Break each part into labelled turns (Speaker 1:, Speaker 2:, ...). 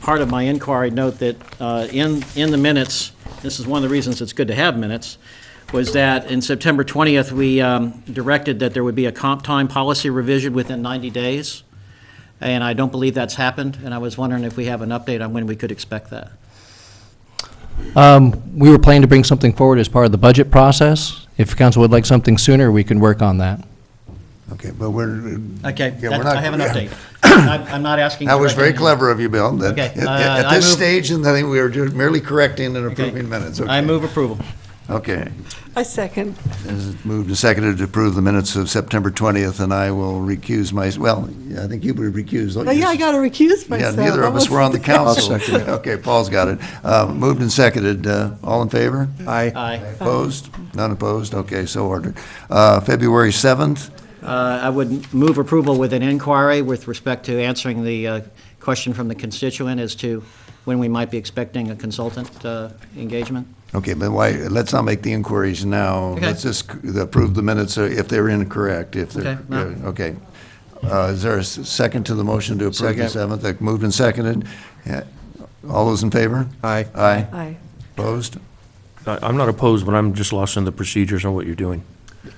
Speaker 1: part of my inquiry, note that uh, in, in the minutes, this is one of the reasons it's good to have minutes, was that in September 20th, we um, directed that there would be a comp time policy revision within 90 days, and I don't believe that's happened, and I was wondering if we have an update on when we could expect that.
Speaker 2: We were planning to bring something forward as part of the budget process. If council would like something sooner, we can work on that.
Speaker 3: Okay, but we're.
Speaker 1: Okay, that-
Speaker 3: yeah, we're not-
Speaker 1: I have an update. I'm I'm not asking.
Speaker 3: That was
Speaker 1: for
Speaker 3: very
Speaker 1: anything.
Speaker 3: clever of you, Bill. that-
Speaker 1: Okay,
Speaker 3: at-
Speaker 1: uh,
Speaker 3: At
Speaker 1: I
Speaker 3: this
Speaker 1: move-
Speaker 3: stage, and I think we were ju- merely correcting and
Speaker 1: Okay.
Speaker 3: approving minutes.
Speaker 1: I
Speaker 3: Okay.
Speaker 1: move approval.
Speaker 3: Okay.
Speaker 4: I second.
Speaker 3: As it's moved and seconded to approve the minutes of September 20th, and I will recuse my, well, yeah, I think you would recuse. don't
Speaker 4: Oh,
Speaker 3: you?
Speaker 4: yeah, I got to recuse
Speaker 3: Yeah,
Speaker 4: myself.
Speaker 3: neither
Speaker 4: I
Speaker 3: of us were on the
Speaker 4: wasn't
Speaker 3: council.
Speaker 5: I'll second it.
Speaker 3: Okay, Paul's got it. Uh, Moved and seconded. Uh, All in favor?
Speaker 5: Aye.
Speaker 1: Aye.
Speaker 3: Opposed? None opposed? Okay, so ordered. Uh, February 7th,
Speaker 1: Uh, I would move approval with an inquiry with respect to answering the uh, question from the constituent as to when we might be expecting a consultant uh, engagement.
Speaker 3: Okay, but why, let's not make the inquiries now.
Speaker 1: Okay.
Speaker 3: Let's just approve the minutes uh, if they're incorrect, if they're,
Speaker 1: Okay, no.
Speaker 3: yeah, okay. Uh, Is there a s- second to the motion to approve the
Speaker 5: Second.
Speaker 3: 7th? Like, Moved and seconded. Yeah. All those in favor?
Speaker 5: Aye.
Speaker 3: Aye.
Speaker 4: Aye.
Speaker 3: Opposed?
Speaker 6: I- I'm not opposed, but I'm just lost in the procedures on what you're doing.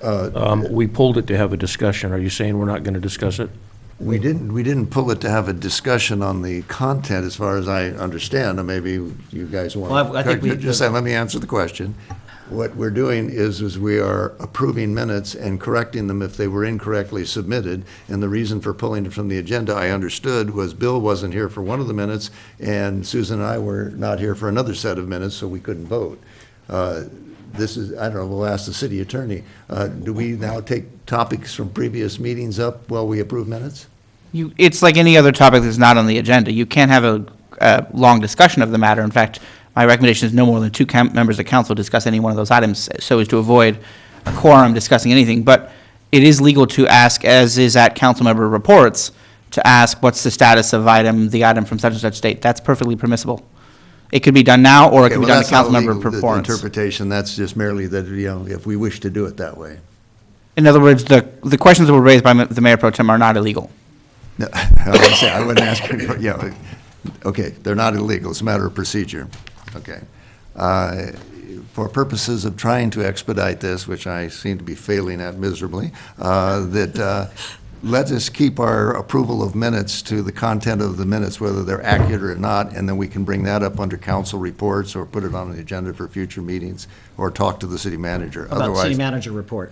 Speaker 5: Uh,
Speaker 6: Um, We pulled it to have a discussion. Are you saying we're not going to discuss it?
Speaker 3: We didn't, we didn't pull it to have a discussion on the content, as far as I understand, and maybe you guys want.
Speaker 1: Well, I- I think we-
Speaker 3: Just say, let me answer the question. What we're doing is, is we are approving minutes and correcting them if they were incorrectly submitted. And the reason for pulling it from the agenda, I understood, was Bill wasn't here for one of the minutes, and Susan and I were not here for another set of minutes, so we couldn't vote. Uh, This is, I don't know, we'll ask the city attorney, uh, do we now take topics from previous meetings up while we approve minutes?
Speaker 7: You, it's like any other topic that's not on the agenda. You can't have a, a long discussion of the matter. In fact, my recommendation is no more than two cam- members of council discuss any one of those items so as to avoid a quorum discussing anything. But it is legal to ask, as is at council member reports, to ask what's the status of item, the item from such and such date. That's perfectly permissible. It could be done now or it
Speaker 3: Okay,
Speaker 7: could be
Speaker 3: well,
Speaker 7: done at
Speaker 3: that's not
Speaker 7: council member
Speaker 3: legal, the- the
Speaker 7: reports.
Speaker 3: Interpretation, that's just merely that, you know, if we wish to do it that way.
Speaker 7: In other words, the, the questions that were raised by ma- the mayor pro tem are not illegal.
Speaker 3: No, I wouldn't say- I wouldn't ask, any- yeah, okay, they're not illegal, it's a matter of procedure, okay. Uh, For purposes of trying to expedite this, which I seem to be failing at miserably, uh, that, uh, let us keep our approval of minutes to the content of the minutes, whether they're accurate or not, and then we can bring that up under council reports or put it on the agenda for future meetings, or talk to the city manager.
Speaker 1: About city
Speaker 3: Otherwise-
Speaker 1: manager report.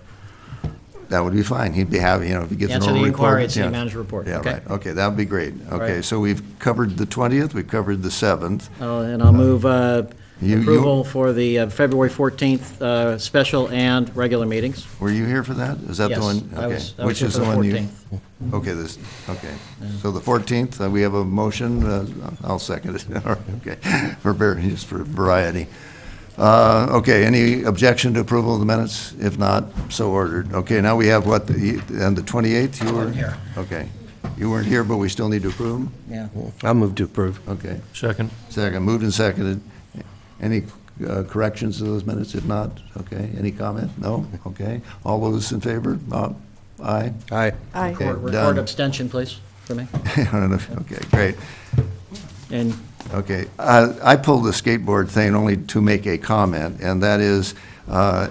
Speaker 3: That would be fine. He'd be happy, you know, if he gets an
Speaker 1: Answer the
Speaker 3: oral report.
Speaker 1: inquiry at city
Speaker 3: yeah.
Speaker 1: manager report.
Speaker 3: Yeah,
Speaker 1: Okay.
Speaker 3: right. Okay, that would be great. Okay,
Speaker 1: right.
Speaker 3: so we've covered the 20th, we've covered the 7th.
Speaker 1: Uh, And I'll move uh,
Speaker 3: You- you-
Speaker 1: approval for the uh, February 14th uh, special and regular meetings.
Speaker 3: Were you here for that? Is that the
Speaker 1: Yes,
Speaker 3: one?
Speaker 1: I
Speaker 3: Okay.
Speaker 1: was- I was
Speaker 3: Which
Speaker 1: here
Speaker 3: is
Speaker 1: for the
Speaker 3: one you-
Speaker 1: 14th.
Speaker 3: Okay, this, okay. So the 14th, uh, we have a motion, uh, I'll second it. All right, Okay, for, var- just for variety. Uh, Okay, any objection to approval of the minutes? If not, so ordered. Okay, now we have what, the- and the 28th, you were?
Speaker 1: wasn't here.
Speaker 3: Okay. You weren't here, but we still need to approve them?
Speaker 1: Yeah.
Speaker 5: I move to approve.
Speaker 3: Okay.
Speaker 6: Second.
Speaker 3: Second, moved and seconded. Any uh, corrections to those minutes? If not, okay, any comment? No? Okay. All those in favor? Uh, Aye?
Speaker 5: Aye.
Speaker 4: Aye.
Speaker 3: Okay.
Speaker 1: Record
Speaker 3: done.
Speaker 1: record abstention, please, for me.
Speaker 3: I don't know if- Okay, great.
Speaker 1: And
Speaker 3: Okay. Uh, I pulled the skateboard thing only to make a comment, and that is, uh,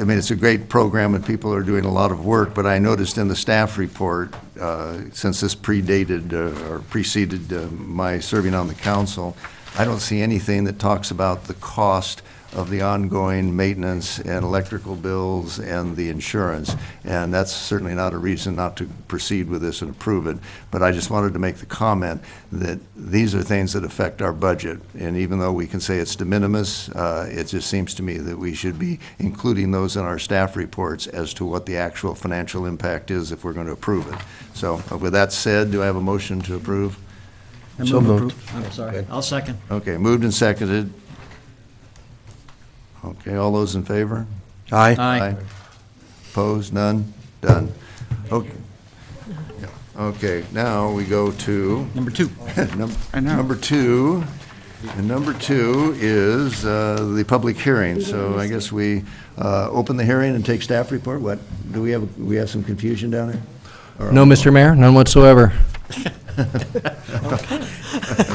Speaker 3: I mean, it's a great program and people are doing a lot of work, but I noticed in the staff report, uh, since this predated uh, or preceded uh, my serving on the council, I don't see anything that talks about the cost of the ongoing maintenance and electrical bills and the insurance. And that's certainly not a reason not to proceed with this and approve it. But I just wanted to make the comment that these are things that affect our budget. And even though we can say it's de minimis, uh, it just seems to me that we should be including those in our staff reports as to what the actual financial impact is if we're going to approve it. So uh, with that said, do I have a motion to approve?
Speaker 1: I
Speaker 5: So
Speaker 1: move
Speaker 5: moved.
Speaker 1: appro- I'm sorry, I'll second.
Speaker 3: Okay, moved and seconded. Okay, all those in favor?
Speaker 5: Aye.
Speaker 1: Aye.
Speaker 3: Opposed, none? Done. Okay. Okay, now we go to
Speaker 1: Number two.
Speaker 3: Num-
Speaker 7: I know.
Speaker 3: Number two, and number two is uh, the public hearing. So I guess we uh, open the hearing and take staff report. What, do we have, we have some confusion down there?
Speaker 2: No, Mr. Mayor, none whatsoever.